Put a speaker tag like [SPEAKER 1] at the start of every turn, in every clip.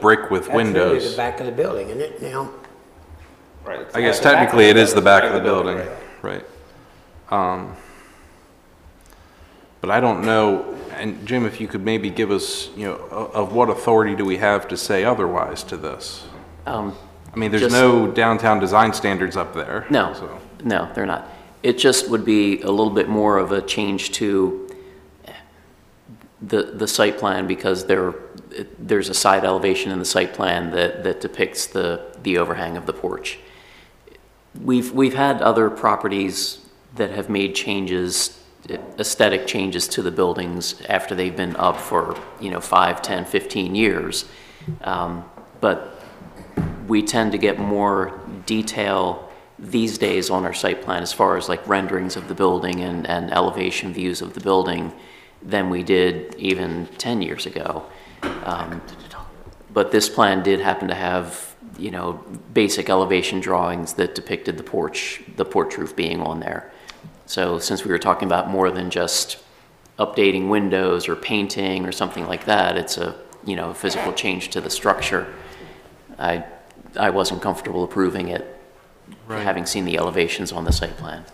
[SPEAKER 1] brick with
[SPEAKER 2] That's really The
[SPEAKER 1] windows.
[SPEAKER 2] back of the building, isn't it now?
[SPEAKER 3] Right. it's
[SPEAKER 1] I guess
[SPEAKER 3] not the back
[SPEAKER 1] technically it is the back of the
[SPEAKER 3] building,
[SPEAKER 1] building, right. Um, But I don't know, and Jim, if you could maybe give us, you know, o- of what authority do we have to say otherwise to this?
[SPEAKER 4] Um,
[SPEAKER 1] I mean, there's
[SPEAKER 4] Just-
[SPEAKER 1] no downtown design standards up there. so-
[SPEAKER 4] No, no, they're not. It just would be a little bit more of a change to the, the site plan because there, there's a side elevation in the site plan that, that depicts the, the overhang of the porch. We've, we've had other properties that have made changes, aesthetic changes to the buildings after they've been up for, you know, five, 10, 15 years. Um, But we tend to get more detail these days on our site plan as far as like renderings of the building and, and elevation views of the building than we did even 10 years ago. Um, But this plan did happen to have, you know, basic elevation drawings that depicted the porch, the porch roof being on there. So since we were talking about more than just updating windows or painting or something like that, it's a, you know, physical change to the structure. I, I wasn't comfortable approving it, having seen the elevations on the site plan.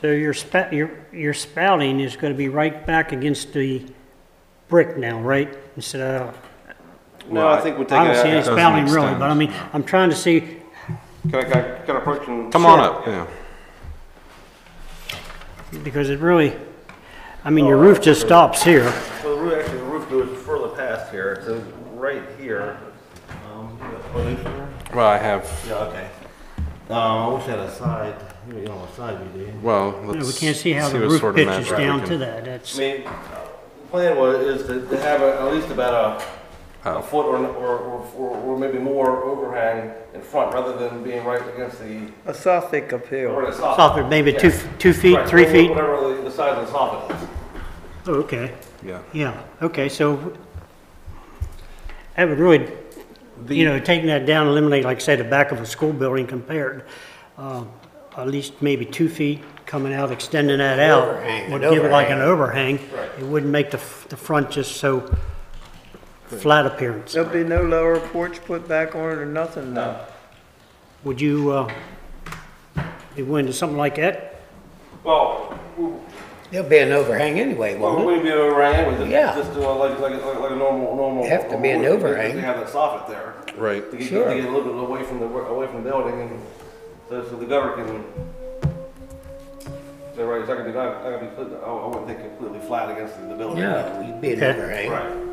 [SPEAKER 5] So your spout, your, your spouting is gonna be right back against the brick now, right? Instead of,
[SPEAKER 3] No, I think we'll take
[SPEAKER 5] I don't see any
[SPEAKER 3] it out.
[SPEAKER 1] doesn't
[SPEAKER 5] spouting really,
[SPEAKER 1] extend.
[SPEAKER 5] but I mean, I'm trying to see,
[SPEAKER 3] Can I, can I- can I approach and?
[SPEAKER 1] Come on up, yeah.
[SPEAKER 5] because it really, I mean, your roof just stops here.
[SPEAKER 3] Well, the roof, actually, the roof goes further past here, so right here. um, oh, this here?
[SPEAKER 1] Well, I have,
[SPEAKER 3] Yeah, okay. Um, I wish I had a side, you don't want a side view, do you?
[SPEAKER 1] well,
[SPEAKER 5] You know,
[SPEAKER 1] let's.
[SPEAKER 5] We can't see how the
[SPEAKER 1] what
[SPEAKER 5] roof
[SPEAKER 1] sort of
[SPEAKER 5] pitches
[SPEAKER 1] map we
[SPEAKER 5] down
[SPEAKER 1] can-
[SPEAKER 5] to that, that's,
[SPEAKER 3] I mean, the plan was, is to to have a- at least about a,
[SPEAKER 1] Oh.
[SPEAKER 3] a foot or, or, or- or maybe more overhang in front, rather than being right against the,
[SPEAKER 6] A Suffolk appeal.
[SPEAKER 3] or the soffit.
[SPEAKER 5] soffit, maybe two,
[SPEAKER 3] Yeah.
[SPEAKER 5] two feet,
[SPEAKER 3] Right,
[SPEAKER 5] three
[SPEAKER 3] whatever-
[SPEAKER 5] feet?
[SPEAKER 3] Whatever the- the size of the soffit is.
[SPEAKER 5] Oh, okay,
[SPEAKER 1] Yeah.
[SPEAKER 5] yeah, okay, so that would really, you know, taking that down, eliminate, like, say, the back of a school building compared, uh, at least maybe two feet coming out, extending that out,
[SPEAKER 2] Overhang,
[SPEAKER 5] would
[SPEAKER 2] an
[SPEAKER 5] give it like an
[SPEAKER 2] overhang.
[SPEAKER 5] overhang. It wouldn't make the, f- the front just so flat appearance.
[SPEAKER 6] There'll be no lower porch put back on it or nothing now.
[SPEAKER 5] Would you, uh, be willing to something like that?
[SPEAKER 3] Well, we-
[SPEAKER 2] There'll be an overhang anyway,
[SPEAKER 3] Well,
[SPEAKER 2] won't
[SPEAKER 3] we be overhang with it,
[SPEAKER 2] Mm-hmm. Yeah.
[SPEAKER 3] just do a- like, like, like like a normal, normal.
[SPEAKER 2] Have to be an
[SPEAKER 3] normal-
[SPEAKER 2] overhang.
[SPEAKER 3] They have that soffit there.
[SPEAKER 1] Right.
[SPEAKER 3] To get, to
[SPEAKER 2] Sure.
[SPEAKER 3] get a little bit away from the, away from the building and so, so the governor can. So right, it's not gonna be, not, not gonna be, put- I I wouldn't think completely flat against the
[SPEAKER 2] it?
[SPEAKER 3] building.
[SPEAKER 2] No, it'd be an
[SPEAKER 5] Yeah.
[SPEAKER 2] overhang.
[SPEAKER 3] Right.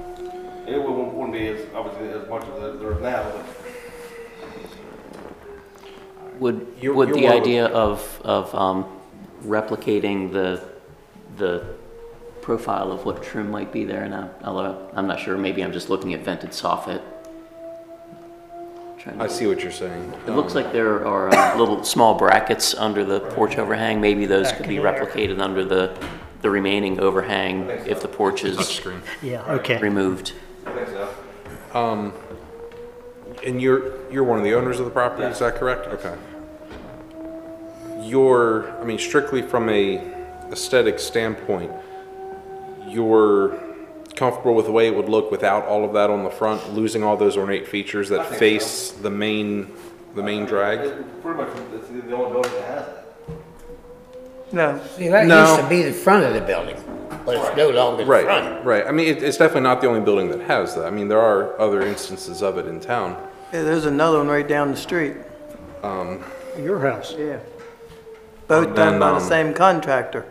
[SPEAKER 3] It wouldn't, wouldn't be as, obviously as much as there- there is now, but.
[SPEAKER 4] Would,
[SPEAKER 1] You're-
[SPEAKER 4] would
[SPEAKER 1] you're
[SPEAKER 4] the
[SPEAKER 1] welcome.
[SPEAKER 4] idea of, of um, replicating the, the profile of what trim might be there now, although I'm not sure, maybe I'm just looking at vented soffit. Trying to-
[SPEAKER 1] I see what you're saying.
[SPEAKER 4] It looks like there are uh, little, small brackets under the porch overhang, maybe those could be replicated under the, the remaining overhang if the porch is
[SPEAKER 1] Touchscreen.
[SPEAKER 5] Yeah, okay.
[SPEAKER 4] removed.
[SPEAKER 3] I think so.
[SPEAKER 1] And you're, you're one of the owners of the property, is that correct? Okay. Your, I mean, strictly from a aesthetic standpoint, you're comfortable with the way it would look without all of that on the front, losing all those ornate features that
[SPEAKER 3] think
[SPEAKER 1] face the main, the main drag?
[SPEAKER 3] It- Pretty much, it's the the only building that has it.
[SPEAKER 6] No,
[SPEAKER 2] See, that
[SPEAKER 1] No.
[SPEAKER 2] used to be the front of the building, but it's no longer the front.
[SPEAKER 1] Right, right. I mean, it, it's definitely not the only building that has that. I mean, there are other instances of it in town.
[SPEAKER 6] Yeah, there's another one right down the street,
[SPEAKER 5] Your house.
[SPEAKER 6] yeah. Both done
[SPEAKER 1] Then,
[SPEAKER 6] by the
[SPEAKER 1] um,
[SPEAKER 6] same contractor,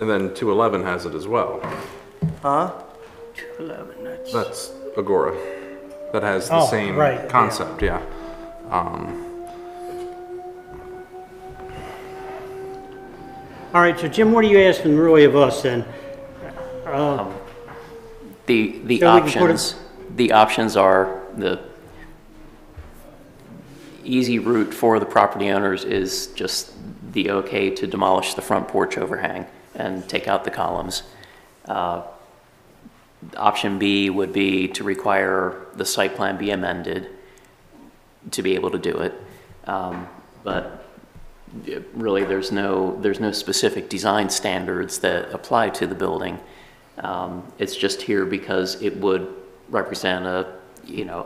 [SPEAKER 1] And then 211 has it as well.
[SPEAKER 6] huh?
[SPEAKER 1] That's Agora. That has the
[SPEAKER 5] Oh,
[SPEAKER 1] same
[SPEAKER 5] right, yeah.
[SPEAKER 1] concept, yeah.
[SPEAKER 5] All right, so Jim, what are you asking really of us then?
[SPEAKER 4] The, the
[SPEAKER 5] So we can put it-
[SPEAKER 4] options, the options are, the easy route for the property owners is just the okay to demolish the front porch overhang and take out the columns. Uh, Option B would be to require the site plan be amended to be able to do it. Um, But it- really, there's no, there's no specific design standards that apply to the building. Um, It's just here because it would represent a, you know,